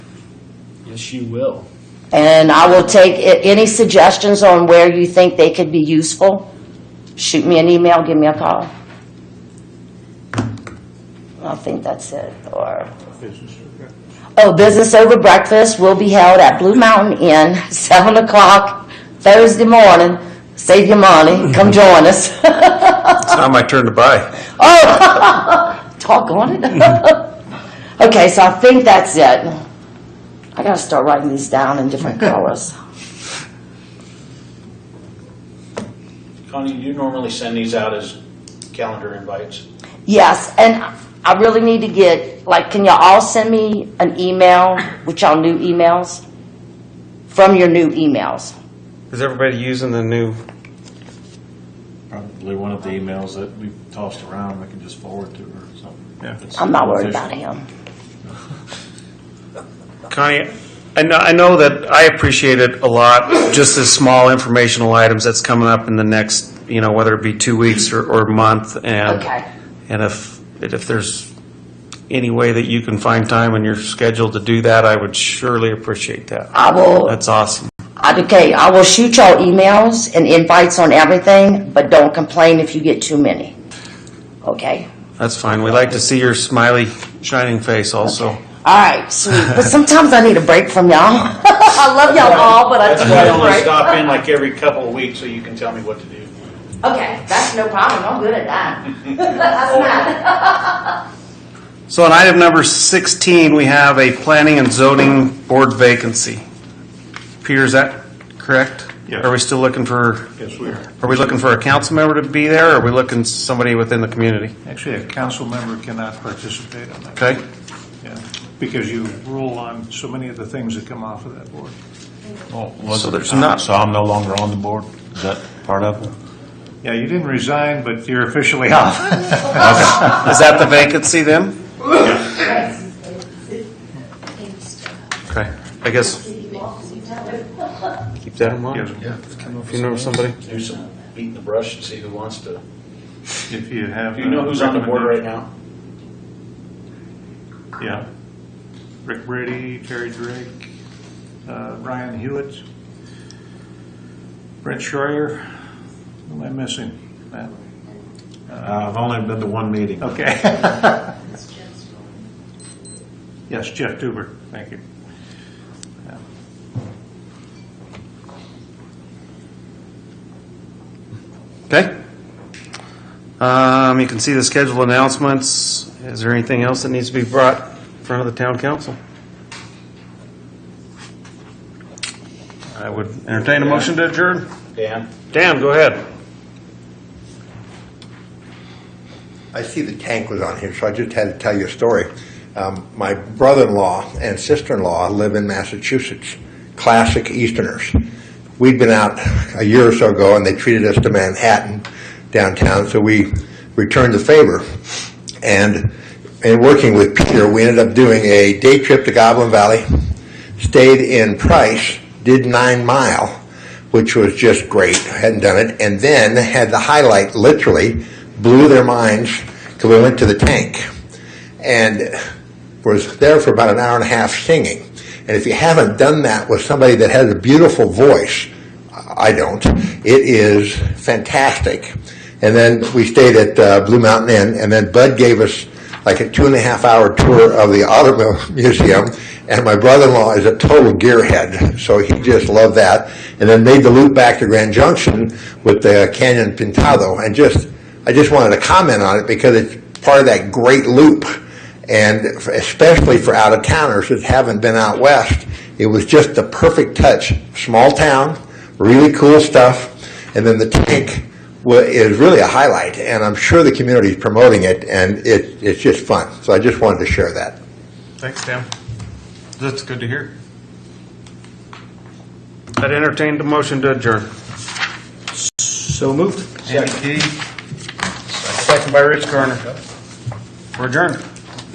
Yes, you will. And I will take a- any suggestions on where you think they could be useful. Shoot me an email, give me a call. I think that's it, or. Oh, Business Over Breakfast will be held at Blue Mountain Inn, 7 o'clock Thursday morning. Save your money, come join us. It's not my turn to buy. Oh, Talk on it. Okay, so I think that's it. I gotta start writing these down in different colors. Connie, you normally send these out as calendar invites. Yes, and I really need to get, like, can y'all all send me an email with y'all new emails? From your new emails? Is everybody using the new? Probably one of the emails that we tossed around, I can just forward to her or something. Yeah. It's I'm not worried about official. him. Connie, I know, I know that I appreciate it a lot, just the small informational items that's coming up in the next, you know, whether it be two weeks or, or month, Um, and. Okay. And if, and if there's any way that you can find time in your schedule to do that, I would surely appreciate that. I will, That's awesome. I- okay, I will shoot y'all emails and invites on everything, but don't complain if you get too many. Okay? That's fine. We like to see your smiley, shining face also. All right, sweet. But sometimes I need a break from y'all. I love y'all all, but I That's just why I need a only break. stop in like every couple of weeks so you can tell me what to do. Okay, that's no problem. I'm good at that. That's not. So on item number 16, we have a planning and zoning board vacancy. Peter, is that correct? Yes. Are we still looking for, Yes, we are. are we looking for a council member to be there, or are we looking somebody within the community? Actually, a council member cannot participate on that. Okay? Yeah, because you rule on so many of the things that come off of that board. Well, was So it, there's not- so I'm no longer on the board? Is that part of it? Yeah, you didn't resign, but you're officially off. Is that the vacancy then? Okay, I guess. Keep that in mind. If you know somebody. Do some beating the brush and see who wants to. If you have. Do you Uh, know a who's on the board right now? Yeah. Rick Brady, Terry Drake, uh, Ryan Hewitt, Brent Schreier. Who am I missing? Matt? I've only been to one meeting. Okay. Yes, Jeff Duber, thank you. Yeah. Okay. Um, you can see the scheduled announcements. Is there anything else that needs to be brought in front of the town council? I would entertain a motion to adjourn. Dan? Dan, go ahead. I see the tank was on here, so I just had to tell you a story. Um, my brother-in-law and sister-in-law live in Massachusetts, classic Easterners. We'd been out a year or so ago, and they treated us to Manhattan downtown, so we returned the favor. And in working with Peter, we ended up doing a day trip to Goblin Valley, stayed in Price, did Nine Mile, which was just great. Hadn't done it, and then had the highlight. Literally, blew their minds because we went to the tank and was there for about an hour and a half singing. And if you haven't done that with somebody that has a beautiful voice, I don't. It is fantastic. And then we stayed at uh, Blue Mountain Inn, and then Bud gave us like a two and a half hour tour of the Automobile Museum. And my brother in law is a total gearhead, so he just loved that. And then made the loop back to Grand Junction with the Canyon Pintado. And just, I just wanted to comment on it because it's part of that great loop and f- especially for out of towners that haven't been out west, it was just the perfect touch. Small town, really cool stuff, and then the tank wa- is really a highlight, and I'm sure the community is promoting it, and it, it's just fun. So I just wanted to share that. Thanks, Dan. That's good to hear. I'd entertain the motion to adjourn. So moved. Andy Key. Second by Rich Garner. We're adjourned.